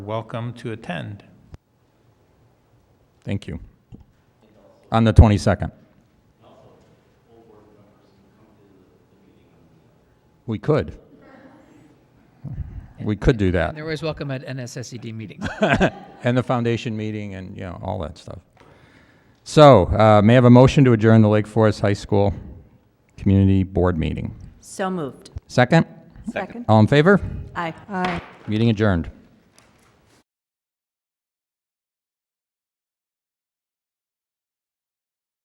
welcome to attend. Thank you. On the 22nd. We could. We could do that. They're always welcome at NSSED E meetings. And the foundation meeting and, you know, all that stuff. So, uh, may I have a motion to adjourn the Lake Forest High School Community Board meeting? So moved. Second? Second. All in favor? Aye. Meeting adjourned.